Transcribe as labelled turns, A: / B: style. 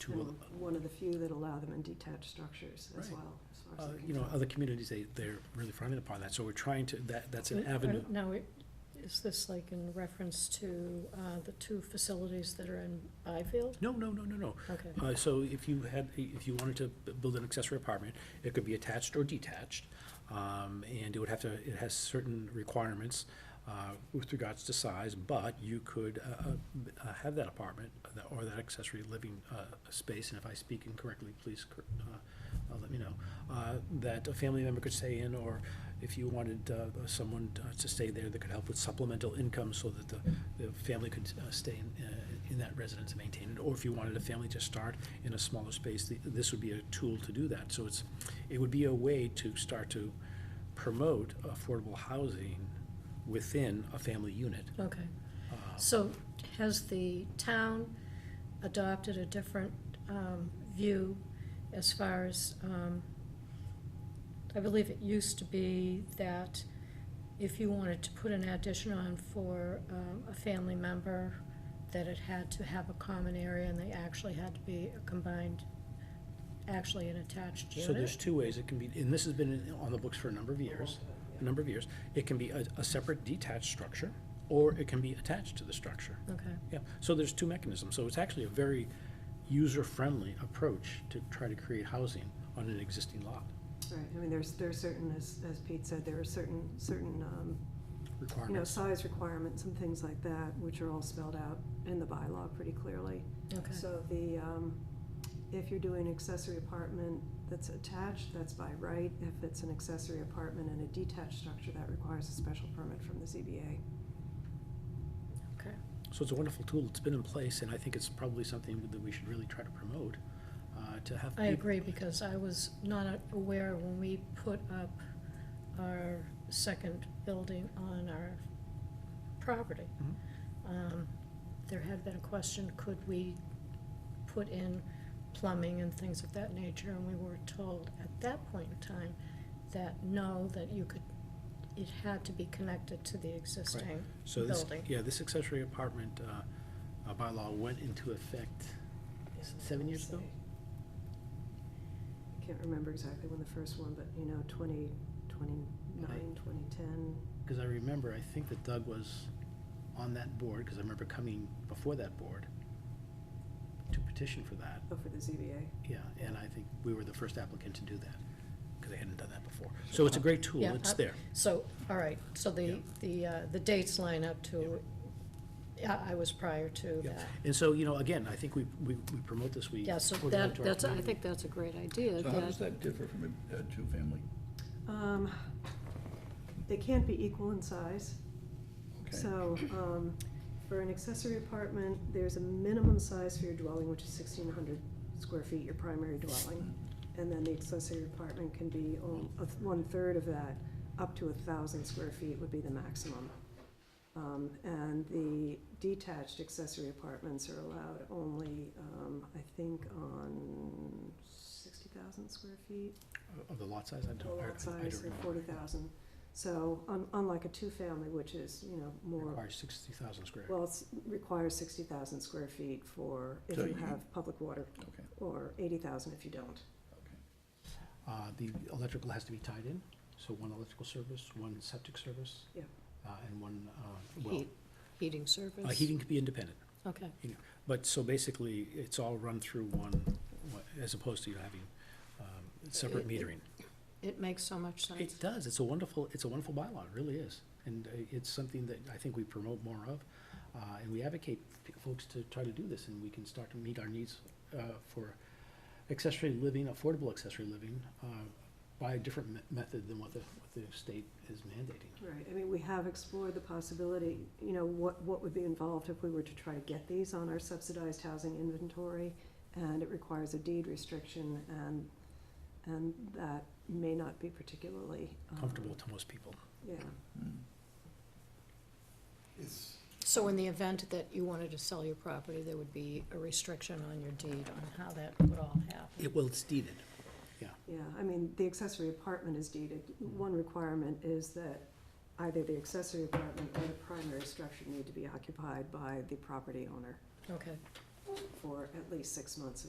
A: to,
B: And one of the few that allow them in detached structures as
A: Right.
B: well, as far
A: uh,
B: as I can
A: you know,
B: tell.
A: other communities, they, they're really fronting upon that, so we're trying to, that, that's an avenue.
C: Now, it- is this like in reference to uh, the two facilities that are in Byfield?
A: No, no, no, no, no.
C: Okay,
A: Uh, so if you had, if you wanted to b- build an accessory apartment, it could be attached or detached, um, and it would have to, it has certain requirements, uh, with regards to size, but you could, uh, uh, b- uh, have that apartment that- or that accessory living, uh, space, and if I speak incorrectly, please, cor- uh, uh, let me know, uh, that a family member could stay in, or if you wanted, uh, someone uh, to stay there that could help with supplemental income so that the, the family could, uh, stay in, uh, in that residence and maintain it, or if you wanted a family to start in a smaller space, th- this would be a tool to do that. So it's, it would be a way to start to promote affordable housing within a family unit. Uh,
C: okay. So has the town adopted a different um, view as far as, um, I believe it used to be that if you wanted to put an addition on for um, a family member, that it had to have a common area and they actually had to be a combined, actually an attached unit?
A: So there's two ways it can be, and this has been in- on the books for a number of years, a number of years. It can be a, a separate detached structure, or it can be attached to the structure.
C: Okay.
A: Yeah, so there's two mechanisms, so it's actually a very user-friendly approach to try to create housing on an existing lot,
B: Right, I mean, there's, there are certain, as, as Pete said, there are certain, certain, um, you know,
A: requirements.
B: size requirements and things like that, which are all spelled out in the bylaw pretty clearly.
C: Okay,
B: So the, um, if you're doing accessory apartment that's attached, that's by right. If it's an accessory apartment and a detached structure, that requires a special permit from the ZBA.
C: okay.
A: So it's a wonderful tool, it's been in place, and I think it's probably something that we should really try to promote, uh, to have.
C: I
A: peop-
C: agree, because I was not aware when we put up our second building on our property.
A: Mhm.
C: um, There had been a question, could we put in plumbing and things of that nature? And we were told at that point in time that no, that you could, it had to be connected to the existing
A: So this,
C: building.
A: yeah, this accessory apartment uh, uh, bylaw went into effect s- seven years ago?
B: I can't remember exactly when the first one, but you know, twenty, twenty-nine, twenty-ten,
A: Because I remember, I think that Doug was on that board, because I remember coming before that board to petition for that,
B: oh, for the ZBA.
A: yeah, and I think we were the first applicant to do that, because they hadn't done that before. So it's a great tool,
C: Yeah,
A: it's
C: I-
A: there.
C: So, all right, so the,
A: Yeah.
C: the, uh, the dates line up to, I, I was prior to
A: Yeah.
C: that.
A: And so, you know, again, I think we, we we promote this, we.
C: Yeah, so
A: we're going
C: that,
A: to our
C: that's, I
A: community.
C: think that's a great idea,
D: So how does
C: that,
D: that differ from a, a two-family?
B: Um, they can't be equal in size.
D: Okay.
B: So, um, for an accessory apartment, there's a minimum size for your dwelling, which is sixteen hundred square feet, your primary dwelling.
D: Mm,
B: And then the accessory apartment can be on- a th- one-third of that, up to a thousand square feet would be the maximum. Um, and the detached accessory apartments are allowed only, um, I think on sixty thousand square feet
A: Of the lot size, I
B: the
A: don't, I-
B: lot
A: I- I
B: size uh,
A: don't
B: of
A: remember.
B: forty thousand. So un- unlike a two-family, which is, you know, more,
A: Requires sixty thousand square.
B: well, it's requires sixty thousand square feet for if
D: So
B: you
D: you-
B: have public water,
D: Okay,
B: or eighty thousand if you don't.
D: okay.
A: Uh, The electrical has to be tied in, so one electrical service, one septic service.
B: Yeah.
A: uh, And one, uh, well,
C: heat, heating
A: uh,
C: service?
A: heating could be independent.
C: Okay,
A: But, so basically, it's all run through one, one- as opposed to you having um, separate
C: It- it-
A: metering.
C: it makes so much sense.
A: It does, it's a wonderful, it's a wonderful bylaw, it really is. And uh, it's something that I think we promote more of, uh, and we advocate p- folks to try to do this, and we can start to meet our needs uh, for accessory living, affordable accessory living, uh, by a different me- method than what the, what the state is mandating.
B: Right, I mean, we have explored the possibility, you know, what, what would be involved if we were to try to get these on our subsidized housing inventory, and it requires a deed restriction, and, and that may not be particularly. um,
A: Comfortable to most people.
B: Yeah,
D: Hmm. It's,
C: So in the event that you wanted to sell your property, there would be a restriction on your deed on how that would all happen?
A: It, well, it's deeded.
B: Yeah, I mean, the accessory apartment is deeded. One requirement is that either the accessory apartment or the primary structure need to be occupied by the property owner
C: Okay,
B: for at least six months of